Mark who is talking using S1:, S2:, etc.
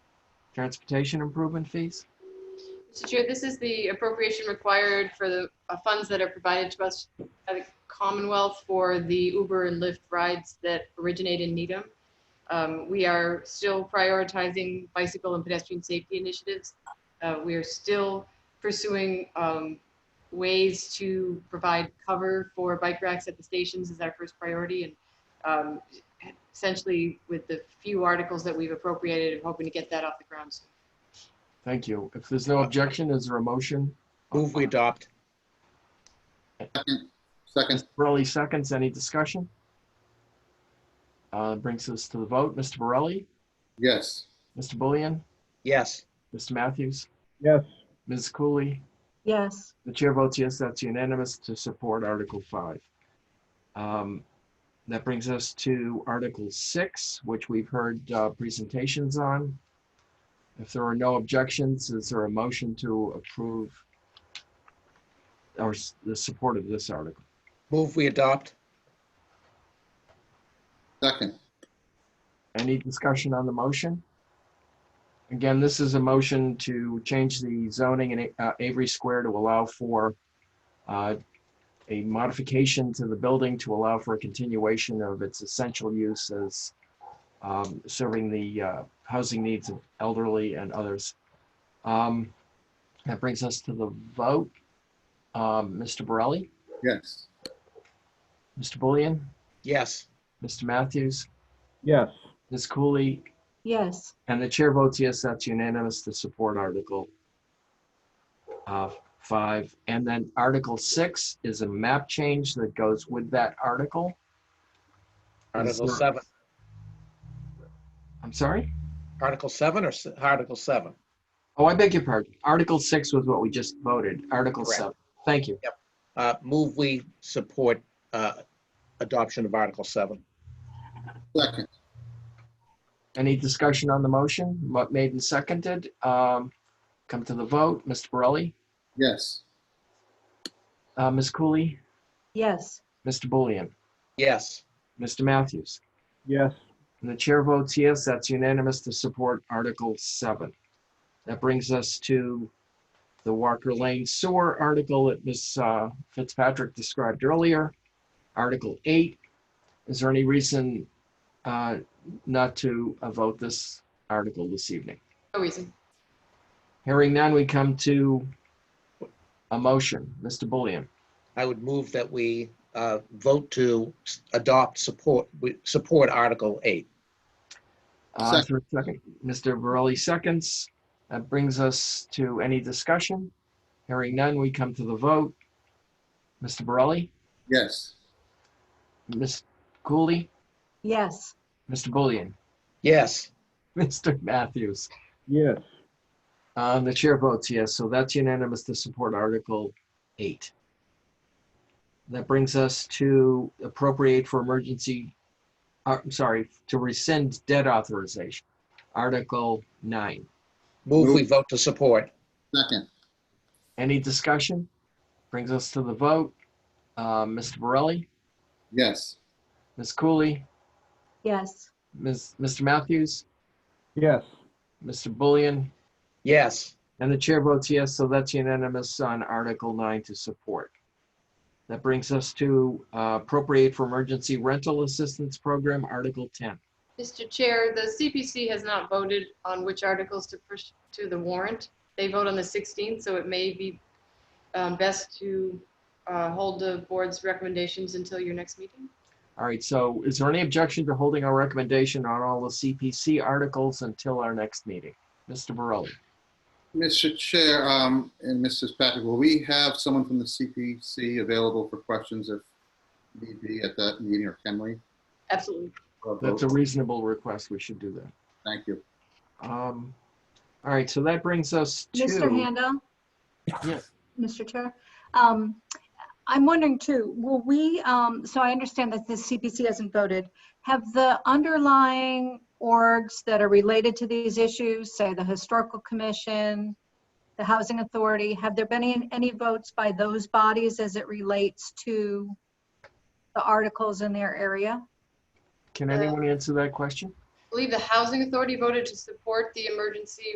S1: transportation improvement fees?
S2: Mr. Chair, this is the appropriation required for the uh, funds that are provided to us by the Commonwealth for the Uber and Lyft rides that originate in Needham. Um, We are still prioritizing bicycle and pedestrian safety initiatives. Uh, We are still pursuing um, ways to provide cover for bike racks at the stations is our first priority. And um, essentially, with the few articles that we've appropriated, hoping to get that off the ground soon.
S1: Thank you. If there's no objection, is there a motion?
S3: Move we adopt.
S4: Second,
S1: Borelli seconds, any discussion? Uh, Brings us to the vote. Mr. Borelli,
S4: yes.
S1: Mr. Bullion,
S3: Yes.
S1: Mr. Matthews,
S5: yes,
S1: Ms. Cooley,
S6: yes,
S1: The chair votes yes, that's unanimous to support Article 5. Um, That brings us to Article 6, which we've heard uh, presentations on. If there are no objections, is there a motion to approve or s- the support of this article?
S3: Move we adopt.
S4: Second,
S1: Any discussion on the motion? Again, this is a motion to change the zoning in A- uh, Avery Square to allow for uh, a modification to the building to allow for a continuation of its essential use as um, serving the uh, housing needs of elderly and others. Um, That brings us to the vote. Um, Mr. Borelli,
S4: yes.
S1: Mr. Bullion,
S3: Yes.
S1: Mr. Matthews,
S5: yes,
S1: Ms. Cooley,
S6: yes,
S1: And the chair votes yes, that's unanimous to support Article uh, five. And then Article six is a map change that goes with that article.
S3: Article
S1: Is there-
S3: seven.
S1: I'm sorry?
S3: Article seven or s- Article seven?
S1: Oh, I beg your pardon. Article six was what we just voted. Article
S3: Correct.
S1: seven. Thank you.
S3: Uh, move we support, uh, adoption of Article seven.
S4: Second,
S1: Any discussion on the motion? What made and seconded? Um, Come to the vote. Mr. Borelli,
S4: yes.
S1: uh, Ms. Cooley,
S6: yes,
S1: Mr. Bullion,
S3: Yes.
S1: Mr. Matthews.
S5: yes,
S1: And the chair votes yes, that's unanimous to support Article 7. That brings us to the Walker Lane Sewer article that Ms. uh, Fitzpatrick described earlier. Article 8, is there any reason uh, not to uh, vote this article this evening?
S2: No reason.
S1: Hearing none, we come to a motion. Mr. Bullion,
S3: I would move that we, uh, vote to s- adopt, support, we support Article eight.
S1: Uh, is there a second. Mr. Borelli seconds. That brings us to any discussion. Hearing none, we come to the vote. Mr. Borelli,
S4: Yes.
S1: Ms. Cooley,
S6: yes,
S1: Mr. Bullion,
S3: Yes.
S1: Mr. Matthews.
S5: yes,
S1: Uh, The chair votes yes, so that's unanimous to support Article 8. That brings us to appropriate for emergency, uh, I'm sorry, to rescind debt authorization, Article 9.
S3: Move we
S4: Move.
S3: vote to support.
S4: Second,
S1: Any discussion? Brings us to the vote. Uh, Mr. Borelli,
S4: yes.
S1: Ms. Cooley,
S6: yes,
S1: Ms., Mr. Matthews,
S5: yes,
S1: Mr. Bullion,
S3: Yes.
S1: and the chair votes yes, so that's unanimous on Article 9 to support. That brings us to uh, appropriate for emergency rental assistance program, Article 10.
S2: Mr. Chair, the CPC has not voted on which articles to push to the warrant. They vote on the 16th, so it may be um, best to uh, hold the board's recommendations until your next meeting.
S1: All right, so is there any objection to holding our recommendation on all the CPC articles until our next meeting? Mr. Borelli?
S4: Mr. Chair, um, and Mrs. Patrick, will we have someone from the CPC available for questions if need be at that meeting, or can we?
S2: Absolutely.
S4: Or
S1: That's a
S4: vote?
S1: reasonable request. We should do that.
S4: Thank you.
S1: Um, all right, so that brings us to.
S6: Mr. Handel?
S1: Yes.
S6: Mr. Chair, um, I'm wondering too, will we, um, so I understand that the CPC hasn't voted. Have the underlying orgs that are related to these issues, say the Historical Commission, the Housing Authority, have there been any, any votes by those bodies as it relates to the articles in their area?
S1: Can anyone answer that question?
S2: I believe the Housing Authority voted to support the emergency